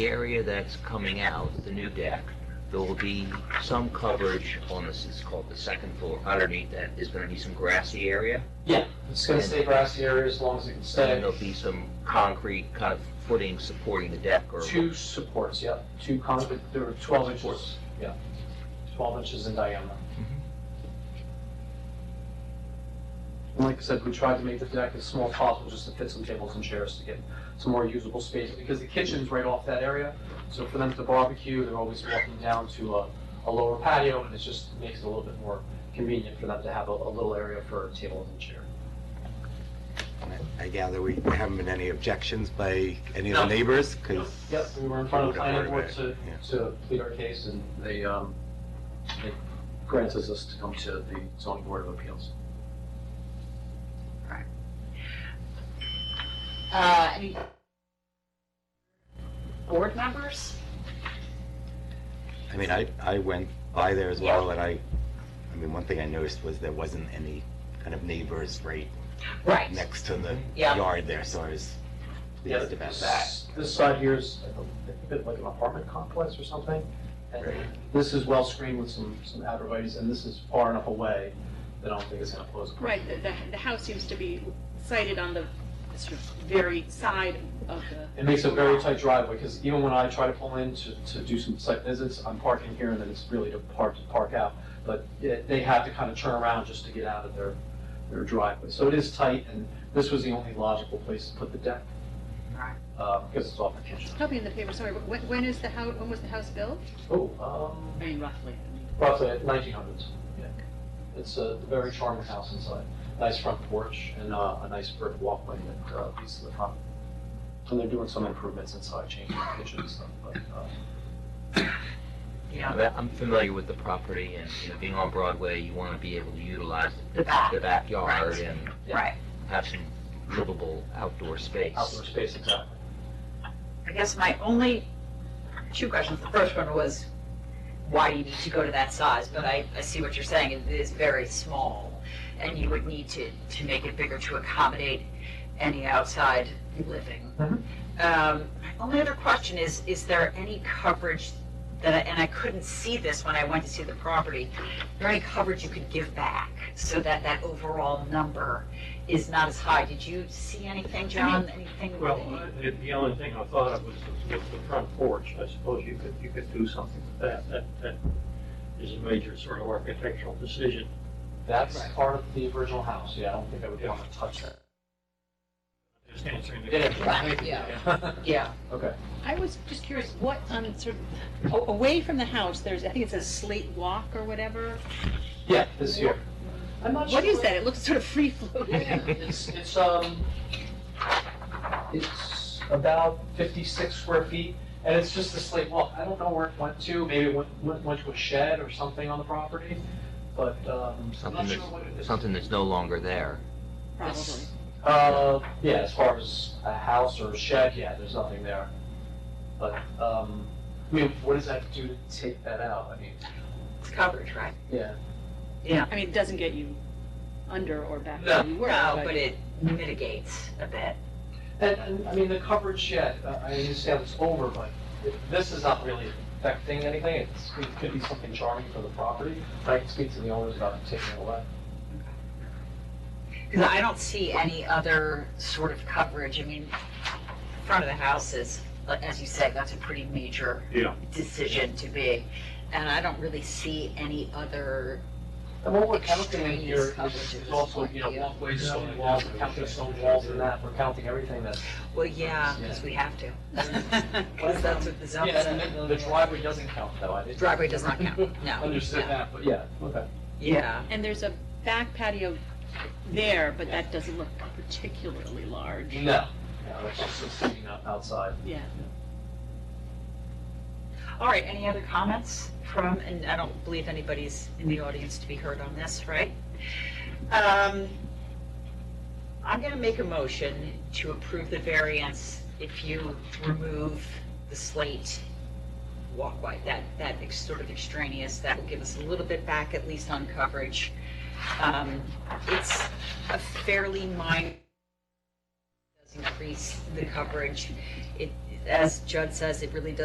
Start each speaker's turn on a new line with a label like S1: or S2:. S1: The area that's coming out, the new deck, there will be some coverage on this, it's called the second floor. Underneath that is gonna be some grassy area,
S2: Yeah, it's gonna stay grassy area as long as it can
S1: and then
S2: stay.
S1: there'll be some concrete kind of footing supporting the deck or.
S2: Two supports, yeah, two concrete, there were twelve inches, yeah, twelve inches in diameter. And like I said, we tried to make the deck as small as possible, just to fit some tables and chairs to get some more usable space, because the kitchen's right off that area, so for them to barbecue, they're always walking down to a, a lower patio, and it just makes it a little bit more convenient for them to have a, a little area for tables and chairs.
S3: I gather we haven't been any objections by any of
S2: No.
S3: the neighbors, because.
S2: Yep, we were in front of the planning
S3: Would've
S2: board
S3: heard
S2: to,
S3: of it,
S2: to plead our case, and they, um, they granted us to come to the zoning board of appeals.
S4: Uh, any board members?
S3: I mean, I, I went by there as well, and I, I mean, one thing I noticed was there wasn't any kind of neighbors right
S4: Right.
S3: next to the
S4: Yeah.
S3: yard there, so I was pleased about that.
S2: This this side here is a bit like an apartment complex or something, and
S3: Right.
S2: this is well screened with some, some abrevieties, and this is far enough away that I don't think it's gonna pose a problem.
S5: Right, the, the, the house seems to be sited on the sort of very side of the.
S2: It makes a very tight driveway, because even when I try to pull in to, to do some site visits, I'm parking here, and then it's really to park, to park out. But yeah, they have to kind of turn around just to get out of their, their driveway. So it is tight, and this was the only logical place to put the deck.
S4: Right.
S2: Uh, because it's off the kitchen.
S5: Probably in the paper, sorry, but when, when is the house, when was the house built?
S2: Oh, um,
S5: I mean, roughly.
S2: roughly nineteen hundreds, yeah. It's a very charming house inside, nice front porch, and, uh, a nice brick walkway that, uh, leads to the front. And they're doing some improvements inside, changing the kitchen and stuff, but, uh,
S4: Yeah.
S1: Yeah, I'm familiar with the property and, you know, being on Broadway, you wanna be able to utilize the
S4: The back.
S1: the backyard
S4: Right.
S1: and
S4: Right.
S1: have some livable outdoor space.
S2: outdoor space, exactly.
S4: I guess my only two questions, the first one was, why do you need to go to that size? But I, I see what you're saying, it is very small, and you would need to, to make it bigger to accommodate any outside living.
S2: Mhm.
S4: Um, my only other question is, is there any coverage that, I- and I couldn't see this when I went to see the property, is there any coverage you could give back so that that overall number is not as high? Did you see anything, John, anything?
S6: Well, uh, the only thing I thought of was, was the front porch. I suppose you could, you could do something with that. That, that is a major sort of architectural decision.
S2: That's
S4: Right.
S2: part of the original house, yeah, I don't think I would
S6: Yeah.
S2: want to touch that.
S6: Just answering the.
S4: Right,
S2: Yeah.
S4: Yeah.
S2: Okay,
S5: I was just curious, what, um, sort of, a- away from the house, there's, I think it says slate walk or whatever.
S2: yeah, this here. I'm not
S5: What is that? It looks sort of free floating.
S2: It's, it's, um, it's about fifty-six square feet, and it's just a slate wall, I don't know where it went to, maybe it went, went, went to a shed or something on the property, but, um, I'm
S1: Something
S2: not sure
S1: that's-
S2: what it is.
S1: Something that's no longer there.
S5: Probably.
S2: Uh, yeah, as far as a house or a shed, yeah, there's nothing there. But, um, I mean, what does that do to take that out? I mean,
S4: It's coverage, right?
S2: yeah.
S5: I mean, it doesn't get you under or back
S2: No.
S5: where you were,
S4: No, but
S5: but
S4: it mitigates a bit.
S2: And, and, I mean, the coverage shed, uh, I understand it's over, but it- this is not really affecting anything. It's, it could be something charming for the property. I can speak to the owners about taking it away.
S4: Because I don't see any other sort of coverage. I mean, front of the house is, like, as you said, that's a pretty major
S6: Yeah.
S4: decision to be. And I don't really see any other,
S2: And what we're counting in here
S4: Extraneous
S2: is
S4: coverage
S2: is
S4: is
S2: also, you know,
S4: like, yeah.
S2: walkways, stone walls, we're counting stone walls and that, we're counting everything that's
S4: well, yeah, because we have to. Because that's what the zone
S2: Yeah, and the- the
S4: says.
S2: driveway doesn't count though, I didn't.
S4: Driveway does not count, no.
S2: Understood
S4: no.
S2: that, but yeah, okay.
S4: Yeah,
S5: And there's a back patio there, but that doesn't look particularly large.
S2: No. No, it's just it's sitting out- outside.
S5: Yeah.
S4: all right, any other comments from, and I don't believe anybody's in the audience to be heard on this, right? Um, I'm going to make a motion to approve the variance if you remove the slate walkway, that, that ex- sort of extraneous, that will give us a little bit back at least on coverage. Um, It's a fairly minor, does increase the coverage. It, as Judd says, it really does